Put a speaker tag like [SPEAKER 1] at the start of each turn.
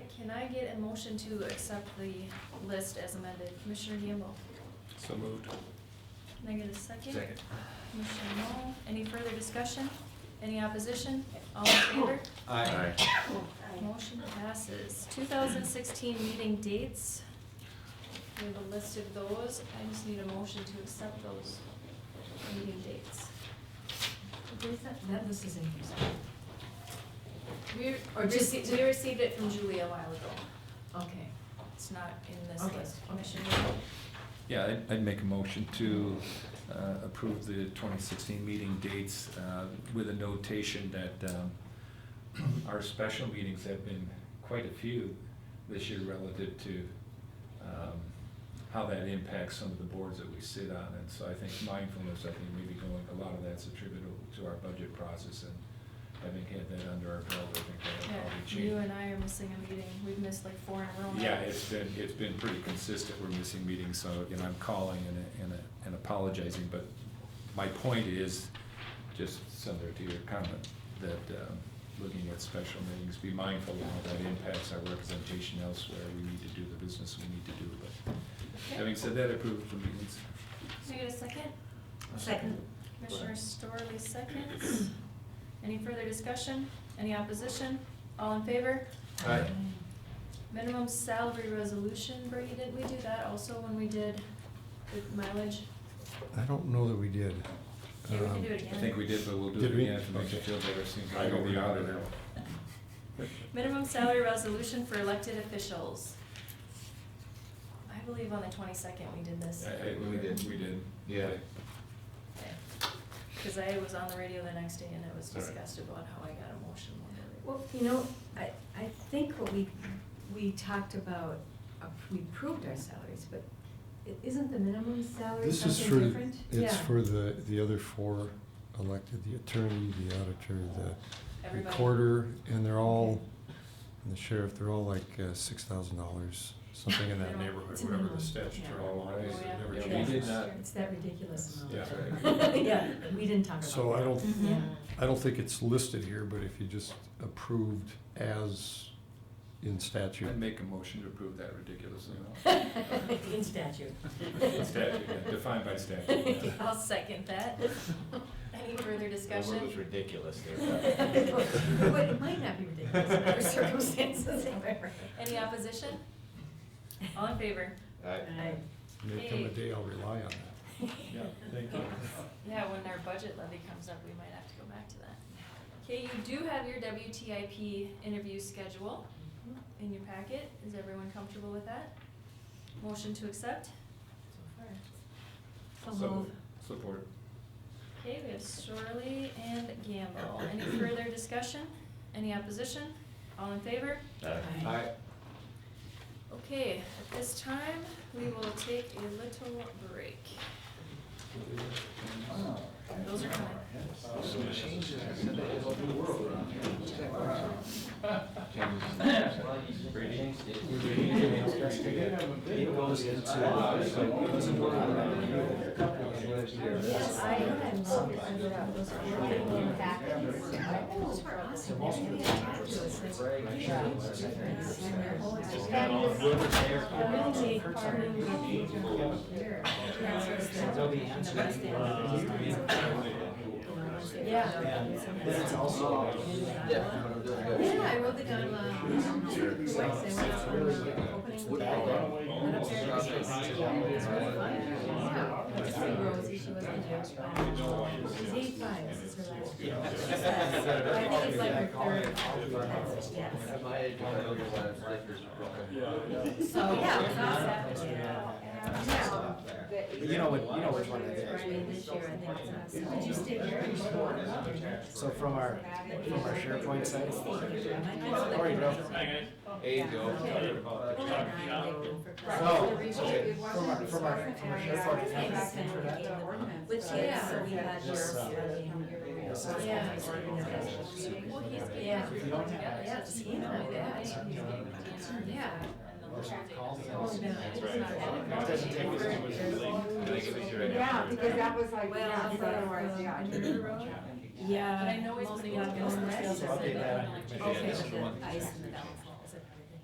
[SPEAKER 1] Can I get a motion to accept the list as amended? Commissioner Gamble,
[SPEAKER 2] So moved.
[SPEAKER 1] can I get a second? Commissioner Moll, any further discussion? Any opposition? All in favor?
[SPEAKER 2] Aye.
[SPEAKER 1] Motion passes. Two thousand sixteen meeting dates. We have a list of those. I just need a motion to accept those meeting dates.
[SPEAKER 3] What is that? That list is interesting.
[SPEAKER 1] We,
[SPEAKER 3] Or just-
[SPEAKER 1] received, we received it from Julie a while ago.
[SPEAKER 3] Okay.
[SPEAKER 1] It's not in this
[SPEAKER 3] Okay,
[SPEAKER 1] list.
[SPEAKER 3] okay.
[SPEAKER 1] Commissioner Gamble?
[SPEAKER 2] Yeah, I'd- I'd make a motion to uh, approve the 2016 meeting dates uh, with a notation that um, our special meetings have been quite a few this year relative to um, how that impacts some of the boards that we sit on. And so I think mindfulness, I think maybe going, a lot of that's attributable to our budget process and having had that under our belt, I think that'll
[SPEAKER 1] Yeah,
[SPEAKER 2] probably change.
[SPEAKER 1] you and I are missing a meeting. We've missed like four in a row now.
[SPEAKER 2] Yeah, it's been, it's been pretty consistent, we're missing meetings, so, you know, I'm calling and, and, and apologizing, but my point is, just similar to your comment, that, um, looking at special meetings, be mindful of how that impacts our representation elsewhere, we need to do the business we need to do, but, having said that, I approve the meetings.
[SPEAKER 1] Can I get a second?
[SPEAKER 3] Second.
[SPEAKER 1] Commissioner Storley seconds. Any further discussion? Any opposition? All in favor?
[SPEAKER 2] Aye.
[SPEAKER 1] Minimum salary resolution, Brady, didn't we do that also when we did the mileage?
[SPEAKER 4] I don't know that we did.
[SPEAKER 1] Yeah, we can do it
[SPEAKER 4] Um,
[SPEAKER 2] I think
[SPEAKER 1] again.
[SPEAKER 2] we did, but we'll do
[SPEAKER 4] Did
[SPEAKER 2] it
[SPEAKER 4] we?
[SPEAKER 2] again if it makes you
[SPEAKER 4] Okay.
[SPEAKER 2] feel better, seeing
[SPEAKER 4] I
[SPEAKER 2] how
[SPEAKER 4] don't
[SPEAKER 2] you're the
[SPEAKER 4] remember
[SPEAKER 2] auditor.
[SPEAKER 1] Minimum salary resolution for elected officials. I believe on the twenty-second we did this.
[SPEAKER 2] I- I- we did, we did.
[SPEAKER 5] Yeah.
[SPEAKER 1] Because I was on the radio the next day and it was
[SPEAKER 2] All right.
[SPEAKER 1] discussed about how I got emotional. over it.
[SPEAKER 3] Well, you know, I, I think what we, we talked about, uh, we proved our salaries, but i- isn't the minimum salary
[SPEAKER 4] This is
[SPEAKER 3] something
[SPEAKER 4] for,
[SPEAKER 3] different?
[SPEAKER 4] it's
[SPEAKER 3] Yeah.
[SPEAKER 4] for the, the other four elected, the attorney, the auditor, the
[SPEAKER 1] Everybody-
[SPEAKER 4] recorder, and they're all, and the sheriff, they're all like uh, six thousand dollars, something in that
[SPEAKER 1] Minimum.
[SPEAKER 4] neighborhood,
[SPEAKER 3] It's a
[SPEAKER 4] whatever
[SPEAKER 3] minimum,
[SPEAKER 4] the statutory
[SPEAKER 3] yeah.
[SPEAKER 4] law is,
[SPEAKER 1] Oh, yeah.
[SPEAKER 4] it never
[SPEAKER 2] Yeah, we
[SPEAKER 4] changes.
[SPEAKER 2] did not-
[SPEAKER 3] It's that ridiculous amount.
[SPEAKER 2] Yeah.
[SPEAKER 3] Yeah, we didn't talk about that. Mm-hmm.
[SPEAKER 4] So I don't,
[SPEAKER 3] Yeah.
[SPEAKER 4] I don't think it's listed here, but if you just approved as in
[SPEAKER 2] I'd
[SPEAKER 4] statute.
[SPEAKER 2] make a motion to approve that ridiculously.
[SPEAKER 3] In statute.
[SPEAKER 2] Statute, yeah, defined by statute. yeah.
[SPEAKER 1] I'll second that. Any further
[SPEAKER 5] That word was
[SPEAKER 1] discussion?
[SPEAKER 5] ridiculous there.
[SPEAKER 3] But it might not be ridiculous in other circumstances, however.
[SPEAKER 1] Any opposition? All in favor?
[SPEAKER 5] I-
[SPEAKER 4] May come a
[SPEAKER 1] Hey.
[SPEAKER 4] day I'll rely on that.
[SPEAKER 2] Yeah, thank you.
[SPEAKER 1] Yeah, when our budget levy comes up, we might have to go back to that. Okay, you do have your WTIP interview schedule in your packet. Is everyone comfortable with that? Motion to accept?
[SPEAKER 3] So
[SPEAKER 2] So
[SPEAKER 3] move.
[SPEAKER 2] moved. Support.
[SPEAKER 1] Okay, we have Sorley and Gamble. Any further discussion? Any opposition? All in favor?
[SPEAKER 3] Aye.
[SPEAKER 5] Aye.
[SPEAKER 1] Okay, at this time, we will take a little break. Those are coming.
[SPEAKER 5] Some changes, I said they had a new world around here. What's that
[SPEAKER 6] It goes into.
[SPEAKER 3] Yes, I, I love it. I love those working factories. Those were awesome. Everything I had to was like, huge difference. And their whole experience. Really big farming people here. That's what it's like. And the West End was just- Yeah. Yeah, I rode the um, gondola. Twice, I went up on the opening day. Went up there and it was really fun. Yeah, that's three rows, she was in there. She's eighty-five, this is her last year. I think it's like her third. Yes.
[SPEAKER 5] At my age, I don't know what it's like. There's a problem.
[SPEAKER 3] So, yeah, it was awesome. Yeah.
[SPEAKER 6] You know what, you know which one it
[SPEAKER 3] Friday
[SPEAKER 6] is.
[SPEAKER 3] this year, I think it's awesome. Did you stay there?
[SPEAKER 6] So from our, from our SharePoint site.
[SPEAKER 3] Or
[SPEAKER 6] Or you know,
[SPEAKER 5] Age old.
[SPEAKER 6] So, okay, from our, from our, from our SharePoint.
[SPEAKER 3] With kids, so we had your.
[SPEAKER 6] uh,
[SPEAKER 3] Yeah.
[SPEAKER 1] Well, he's getting
[SPEAKER 3] Yeah.
[SPEAKER 1] it all together.
[SPEAKER 3] Yeah, just email me that.
[SPEAKER 1] He's getting it.
[SPEAKER 3] Yeah.
[SPEAKER 1] And the whole data.
[SPEAKER 3] Oh,
[SPEAKER 1] So
[SPEAKER 3] no.
[SPEAKER 1] it's not happening.
[SPEAKER 6] It doesn't take us too much to link.
[SPEAKER 5] I think it was your.
[SPEAKER 7] Yeah, because that was like,
[SPEAKER 3] Well,
[SPEAKER 7] yeah,
[SPEAKER 3] it's
[SPEAKER 7] so otherwise,
[SPEAKER 3] like,
[SPEAKER 7] yeah.
[SPEAKER 3] um, River Road. Yeah.
[SPEAKER 1] But I know he's putting out
[SPEAKER 3] Multiple
[SPEAKER 1] those
[SPEAKER 3] options.
[SPEAKER 1] messages.
[SPEAKER 6] Okay, that-
[SPEAKER 1] that-
[SPEAKER 3] Okay,
[SPEAKER 5] that's
[SPEAKER 3] the
[SPEAKER 5] the one.
[SPEAKER 3] ice and the balance.